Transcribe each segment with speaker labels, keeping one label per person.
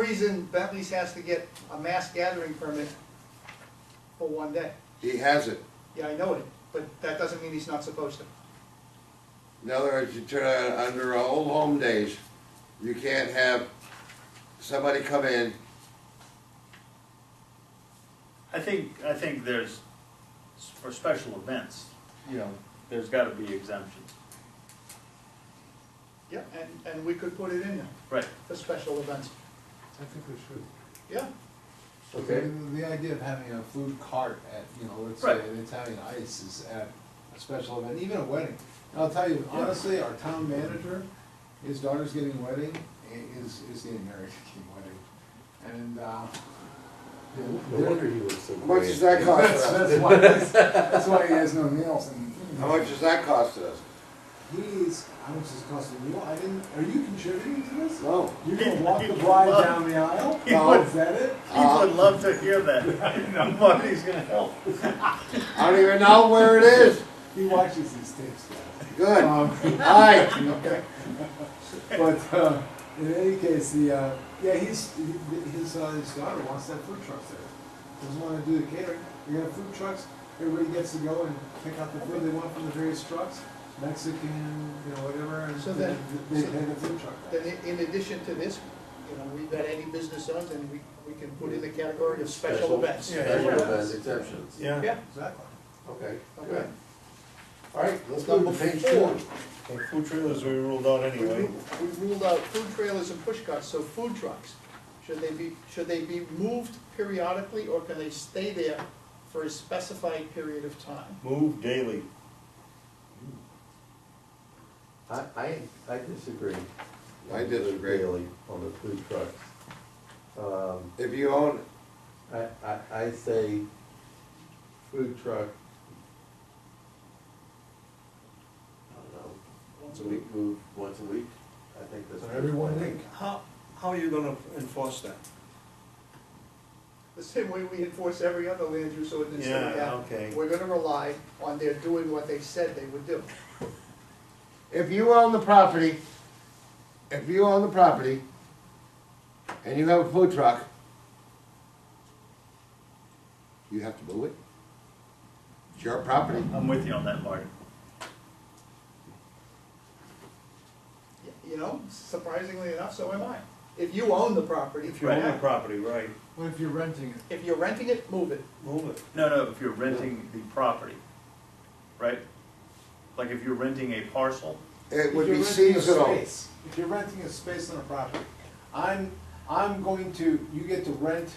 Speaker 1: reason Bentley's has to get a mass gathering permit for one day.
Speaker 2: He has it.
Speaker 1: Yeah, I know it, but that doesn't mean he's not supposed to.
Speaker 2: In other words, you turn on, under old home days, you can't have somebody come in,
Speaker 3: I think, I think there's, for special events, you know, there's gotta be exemptions.
Speaker 1: Yeah, and, and we could put it in there
Speaker 3: Right.
Speaker 1: for special events.
Speaker 4: I think we should.
Speaker 1: Yeah,
Speaker 5: Okay.
Speaker 4: The, the idea of having a food cart at, you know, let's
Speaker 3: Right.
Speaker 4: say an Italian ice is at a special event, even a wedding. And I'll tell you, honestly, our town manager, his daughter's getting a wedding, i- is, is getting married, getting wedding. And, uh.
Speaker 5: No wonder he was so.
Speaker 2: how much does that
Speaker 5: grand.
Speaker 2: cost
Speaker 4: That's,
Speaker 2: us?
Speaker 4: that's why, that's, that's why he has no meals and.
Speaker 2: How much does that cost us?
Speaker 4: He's, how much does it cost a meal? I didn't, are you contributing to this?
Speaker 2: No.
Speaker 4: You can walk the bride down the aisle?
Speaker 3: He
Speaker 4: Oh,
Speaker 3: would-
Speaker 4: is that it?
Speaker 6: Uh,
Speaker 3: People would love to hear that. Nobody's gonna help.
Speaker 2: I don't even know where it is.
Speaker 4: He watches these tapes, guys.
Speaker 2: Good. All
Speaker 4: Um,
Speaker 2: right.
Speaker 4: okay. But, uh, in any case, the, uh, yeah, he's, he- his, uh, his daughter wants that food trucks there. Doesn't wanna do the catering, you have food trucks, everybody gets to go and pick out the food they want from the various trucks, Mexican, you know, whatever, and
Speaker 1: So then-
Speaker 4: they, they have a food truck.
Speaker 1: then i- in addition to this, you know, we've got any business owners and we, we can put in the category of special events.
Speaker 5: Special event exemptions.
Speaker 1: Yeah,
Speaker 4: Exactly.
Speaker 5: Okay,
Speaker 1: okay.
Speaker 5: good. All right, let's
Speaker 1: Number
Speaker 5: move to page
Speaker 1: four.
Speaker 5: four.
Speaker 6: Well, food trailers we ruled out
Speaker 1: We
Speaker 6: anyway.
Speaker 1: ru- we ruled out food trailers and push carts, so food trucks, should they be, should they be moved periodically or can they stay there for a specified period of time?
Speaker 6: Move daily.
Speaker 5: I, I, I disagree.
Speaker 2: I disagree.
Speaker 5: Really, on the food trucks. Um,
Speaker 2: If you own,
Speaker 5: I, I, I say food truck. I don't know.
Speaker 1: Once a
Speaker 5: week. Move once a week, I think that's.
Speaker 4: Every one week.
Speaker 6: How, how are you gonna enforce that?
Speaker 1: The same way we enforce every other land use ordinance that we
Speaker 6: Yeah,
Speaker 1: have.
Speaker 6: okay.
Speaker 1: We're gonna rely on their doing what they said they would do.
Speaker 2: if you own the property, if you own the property and you have a food truck, you have to move it. It's your property.
Speaker 3: I'm with you on that, Marty.
Speaker 1: Y- You know, surprisingly enough, so am I. If you own the property,
Speaker 6: If you own the
Speaker 1: yeah.
Speaker 6: property, right,
Speaker 4: What if you're renting it?
Speaker 1: if you're renting it, move it.
Speaker 6: move it.
Speaker 3: No, no, if you're renting the property, right? Like if you're renting a parcel,
Speaker 2: It
Speaker 4: If
Speaker 2: would
Speaker 4: you're
Speaker 2: be
Speaker 4: renting a
Speaker 2: seasonal.
Speaker 4: space, If you're renting a space on a property, I'm, I'm going to, you get to rent,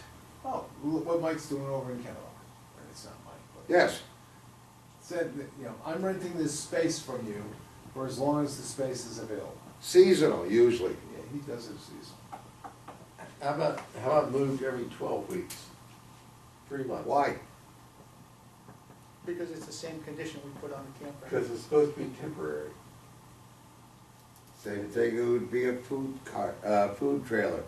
Speaker 4: oh, look what Mike's doing over in Kennebunk, or it's not Mike, but.
Speaker 2: Yes.
Speaker 4: Said, that, you know, I'm renting this space from you for as long as the space is available.
Speaker 2: Seasonal usually.
Speaker 4: Yeah, he does it seasonal.
Speaker 5: How about, how about moved every twelve weeks? Three months.
Speaker 2: Why?
Speaker 1: Because it's the same condition we put on the campground.
Speaker 5: Because it's supposed to be temporary.
Speaker 2: Same thing, it would be a food cart, uh, food trailer.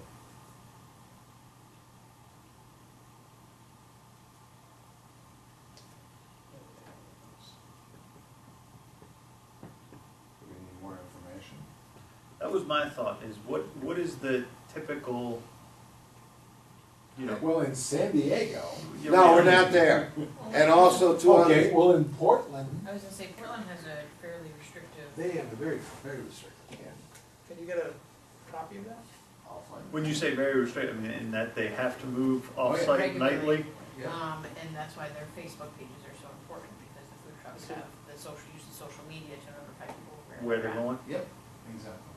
Speaker 4: Do we need more information?
Speaker 3: that was my thought, is what, what is the typical, you know?
Speaker 4: Well, in San Diego.
Speaker 3: you know,
Speaker 2: No, we're not there. And also two
Speaker 4: Okay,
Speaker 2: other,
Speaker 4: well, in Portland.
Speaker 7: I was gonna say Portland has a fairly restrictive.
Speaker 4: They have a very, very restrictive,
Speaker 1: Can you get a copy of that?
Speaker 4: I'll find it.
Speaker 3: When you say very restricted, I mean, in that they have to move
Speaker 4: Oh, yeah.
Speaker 3: off-site
Speaker 7: regularly.
Speaker 3: nightly?
Speaker 4: Yeah.
Speaker 7: Um, and that's why their Facebook pages are so important, because the food trucks have the social, use of social media to notify people
Speaker 3: Where
Speaker 7: where
Speaker 3: they're
Speaker 7: they're at.
Speaker 3: going?
Speaker 4: Yep, exactly.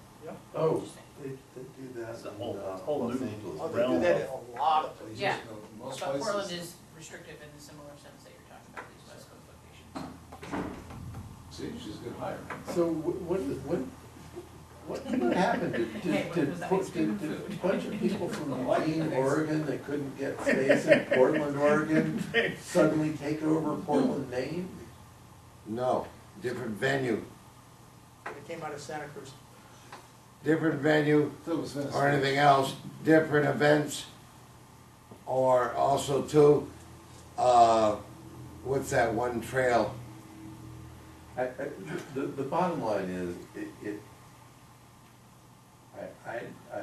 Speaker 5: Oh,
Speaker 7: Interesting.
Speaker 5: they, they do that
Speaker 3: It's a
Speaker 5: in
Speaker 3: whole-
Speaker 5: uh,
Speaker 3: it's a whole
Speaker 5: Los
Speaker 3: new-
Speaker 1: Oh,
Speaker 5: Angeles.
Speaker 1: they do that in a lot of places.
Speaker 7: Yeah.
Speaker 4: Most
Speaker 7: But Portland
Speaker 4: places.
Speaker 7: is restrictive in the similar sense that you're talking about, these West Coast
Speaker 4: See,
Speaker 7: locations.
Speaker 4: she's good hire.
Speaker 5: So wh- what, is- what, what, what happened? Did,
Speaker 7: Hey,
Speaker 5: did,
Speaker 7: what
Speaker 5: did,
Speaker 7: was that?
Speaker 5: put- did- did a bunch of people from Lane, Oregon that couldn't get space in Portland, Oregon suddenly take over Portland, Maine?
Speaker 2: no, different venue,
Speaker 1: It came out of Santa Cruz.
Speaker 2: different venue
Speaker 4: That was Venice.
Speaker 2: or anything else, different events. Or also too, uh, what's that one trail?
Speaker 5: I, I, the, the bottom line is, it, it, I, I, I,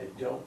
Speaker 4: I don't